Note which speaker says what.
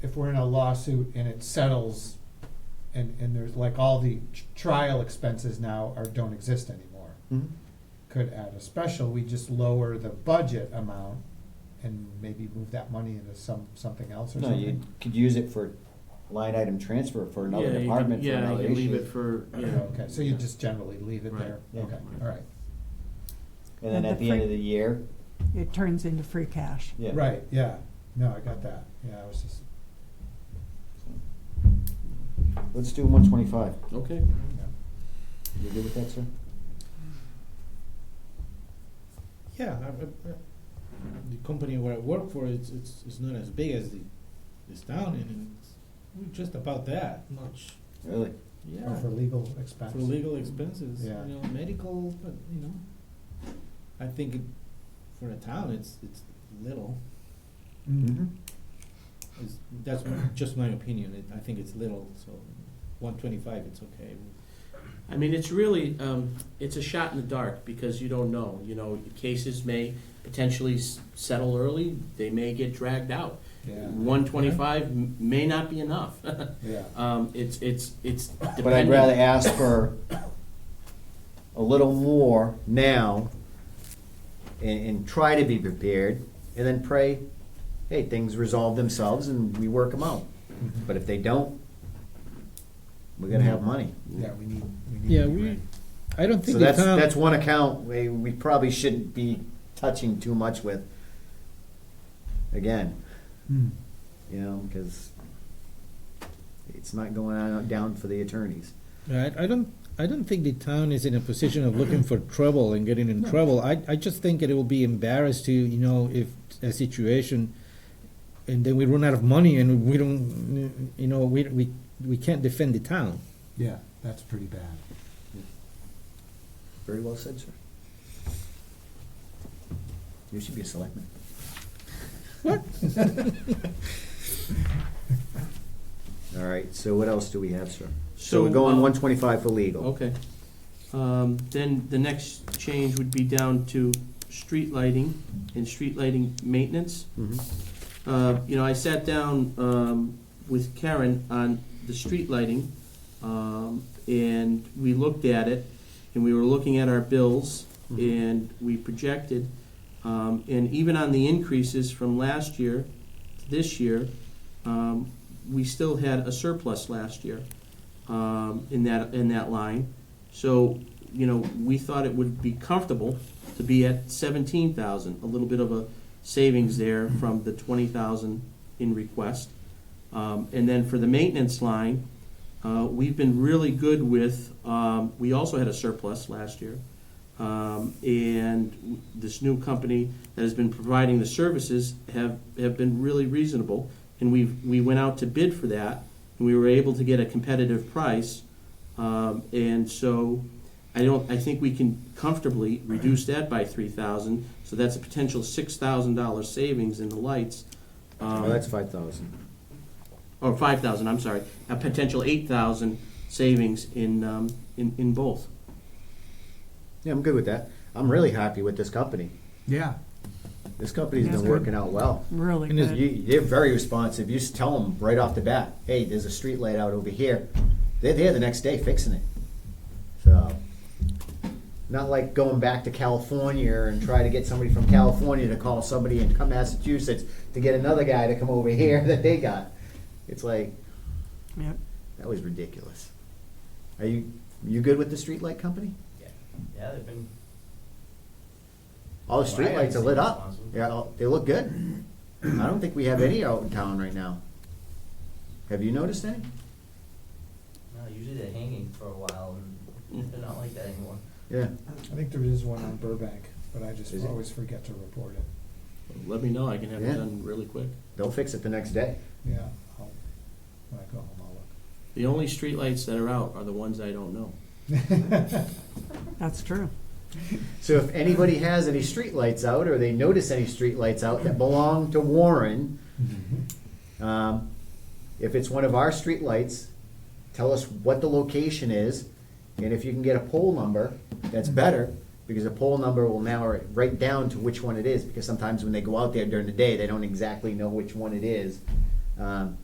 Speaker 1: if we're in a lawsuit and it settles, and, and there's like all the tr- trial expenses now are, don't exist anymore. Could add a special, we just lower the budget amount and maybe move that money into some, something else or
Speaker 2: No, you
Speaker 1: something?
Speaker 2: could use it for line item transfer for
Speaker 3: Yeah,
Speaker 2: another
Speaker 3: you could-
Speaker 2: department, for another
Speaker 3: Yeah, you could leave
Speaker 2: issue.
Speaker 3: it for, yeah.
Speaker 1: Okay, so you just generally leave it
Speaker 3: Right.
Speaker 1: there?
Speaker 2: Yeah.
Speaker 1: Okay,
Speaker 3: Right.
Speaker 1: all right.
Speaker 2: And then
Speaker 4: And
Speaker 2: at
Speaker 4: the
Speaker 2: the end
Speaker 4: free-
Speaker 2: of the year,
Speaker 4: It turns into free cash.
Speaker 2: yeah.
Speaker 1: Right, yeah, no, I got that, yeah, I was just,
Speaker 2: Let's do one twenty-five.
Speaker 3: Okay,
Speaker 1: yeah.
Speaker 2: You good with that, sir?
Speaker 5: Yeah, I, I, I- the company where I work for, it's, it's, it's not as big as the, this town, and it's, we're just about that much.
Speaker 2: Really?
Speaker 5: Yeah,
Speaker 1: Or oh, for legal expense.
Speaker 5: for legal expenses, you
Speaker 1: Yeah.
Speaker 5: know, medical, but, you know, I think it, for a town, it's, it's little.
Speaker 1: Mhm.
Speaker 5: It's, that's my- just my opinion, it, I think it's little, so one twenty-five, it's okay.
Speaker 3: I mean, it's really, um, it's a shot in the dark because you don't know, you know, cases may potentially s- settle early, they may get dragged out.
Speaker 1: Yeah,
Speaker 2: Mm-hmm.
Speaker 3: One twenty-five may not be enough.
Speaker 1: yeah,
Speaker 3: Um, it's, it's, it's dependent.
Speaker 2: But I'd rather ask for a little more now and, and try to be prepared and then pray, hey, things resolve themselves and we work them out.
Speaker 6: Mm-hmm.
Speaker 1: Mhm.
Speaker 2: But if they don't, we're gonna have money.
Speaker 1: yeah, we need, we need.
Speaker 6: Yeah,
Speaker 1: to be
Speaker 6: we-
Speaker 1: ready.
Speaker 6: I don't
Speaker 2: So
Speaker 6: think the
Speaker 2: that's,
Speaker 6: town,
Speaker 2: that's one account we, we probably shouldn't be touching too much with. Again,
Speaker 1: Hmm.
Speaker 2: you know, because it's not going on, down for the attorneys.
Speaker 6: right, I don't, I don't think the town is in a position of looking for trouble and getting in trouble. I, I just think that it will be embarrassed to, you know, if a situation, and then we run out of money and we don't, you know, we, we, we can't defend the town.
Speaker 1: Yeah, that's pretty bad.
Speaker 2: Very well said, sir. You should be a selectman. What? All right, so what else do we have, sir? So we're going
Speaker 3: um,
Speaker 2: one twenty-five for legal.
Speaker 3: Okay. Um, Then the next change would be down to street lighting and street lighting maintenance.
Speaker 2: Mhm.
Speaker 3: Uh, You know, I sat down um, with Karen on the street lighting, um, and we looked at it, and we were looking at our bills,
Speaker 2: Mhm.
Speaker 3: and we projected, um, and even on the increases from last year to this year, um, we still had a surplus last year um, in that, in that line. So, you know, we thought it would be comfortable to be at seventeen thousand, a little bit of a savings there from the twenty thousand in request. Um, and then for the maintenance line, uh, we've been really good with, um, we also had a surplus last year. Um, and w- this new company that has been providing the services have, have been really reasonable. And we we went out to bid for that, and we were able to get a competitive price. Um, and so, I don't, I think we can comfortably reduce that by three thousand. So that's a potential six thousand dollar savings in the lights. Um,
Speaker 2: Oh, that's five thousand.
Speaker 3: or five thousand, I'm sorry, a potential eight thousand savings in, um, in, in both.
Speaker 2: Yeah, I'm good with that. I'm really happy with this company.
Speaker 1: Yeah.
Speaker 2: This company's
Speaker 4: That's
Speaker 2: been
Speaker 4: good.
Speaker 2: working out well.
Speaker 4: Really
Speaker 6: And is
Speaker 4: good.
Speaker 2: You, they're very responsive. You just tell them right off the bat, hey, there's a street light out over here. They're there the next day fixing it. So, not like going back to California and try to get somebody from California to call somebody in come Massachusetts to get another guy to come over here that they got. It's like,
Speaker 4: Yep.
Speaker 2: that was ridiculous. Are you, you good with the street light company?
Speaker 7: Yeah, they've been.
Speaker 2: All the
Speaker 7: Well, I haven't
Speaker 2: streetlights are
Speaker 7: seen
Speaker 2: lit
Speaker 7: them,
Speaker 2: up.
Speaker 7: honestly.
Speaker 2: Yeah, all- they look good. I don't think we have any out in town right now. Have you noticed any?
Speaker 7: No, usually they're hanging for a while, and they're not like that anymore.
Speaker 2: Yeah.
Speaker 1: I think there is one on Burbank, but I just
Speaker 2: Is it?
Speaker 1: always forget to report it.
Speaker 3: Let me know, I can have it
Speaker 2: Yeah.
Speaker 3: done really quick.
Speaker 2: They'll fix it the next day.
Speaker 1: Yeah, I'll, when I go home, I'll
Speaker 3: The only streetlights that are out are the ones I don't know.
Speaker 1: look.
Speaker 4: That's true.
Speaker 2: So if anybody has any streetlights out or they notice any streetlights out that belong to Warren, um, if it's one of our streetlights, tell us what the location is. And if you can get a poll number, that's better because a poll number will now write down to which one it is. Because sometimes when they go out there during the day, they don't exactly know which one it is. Um,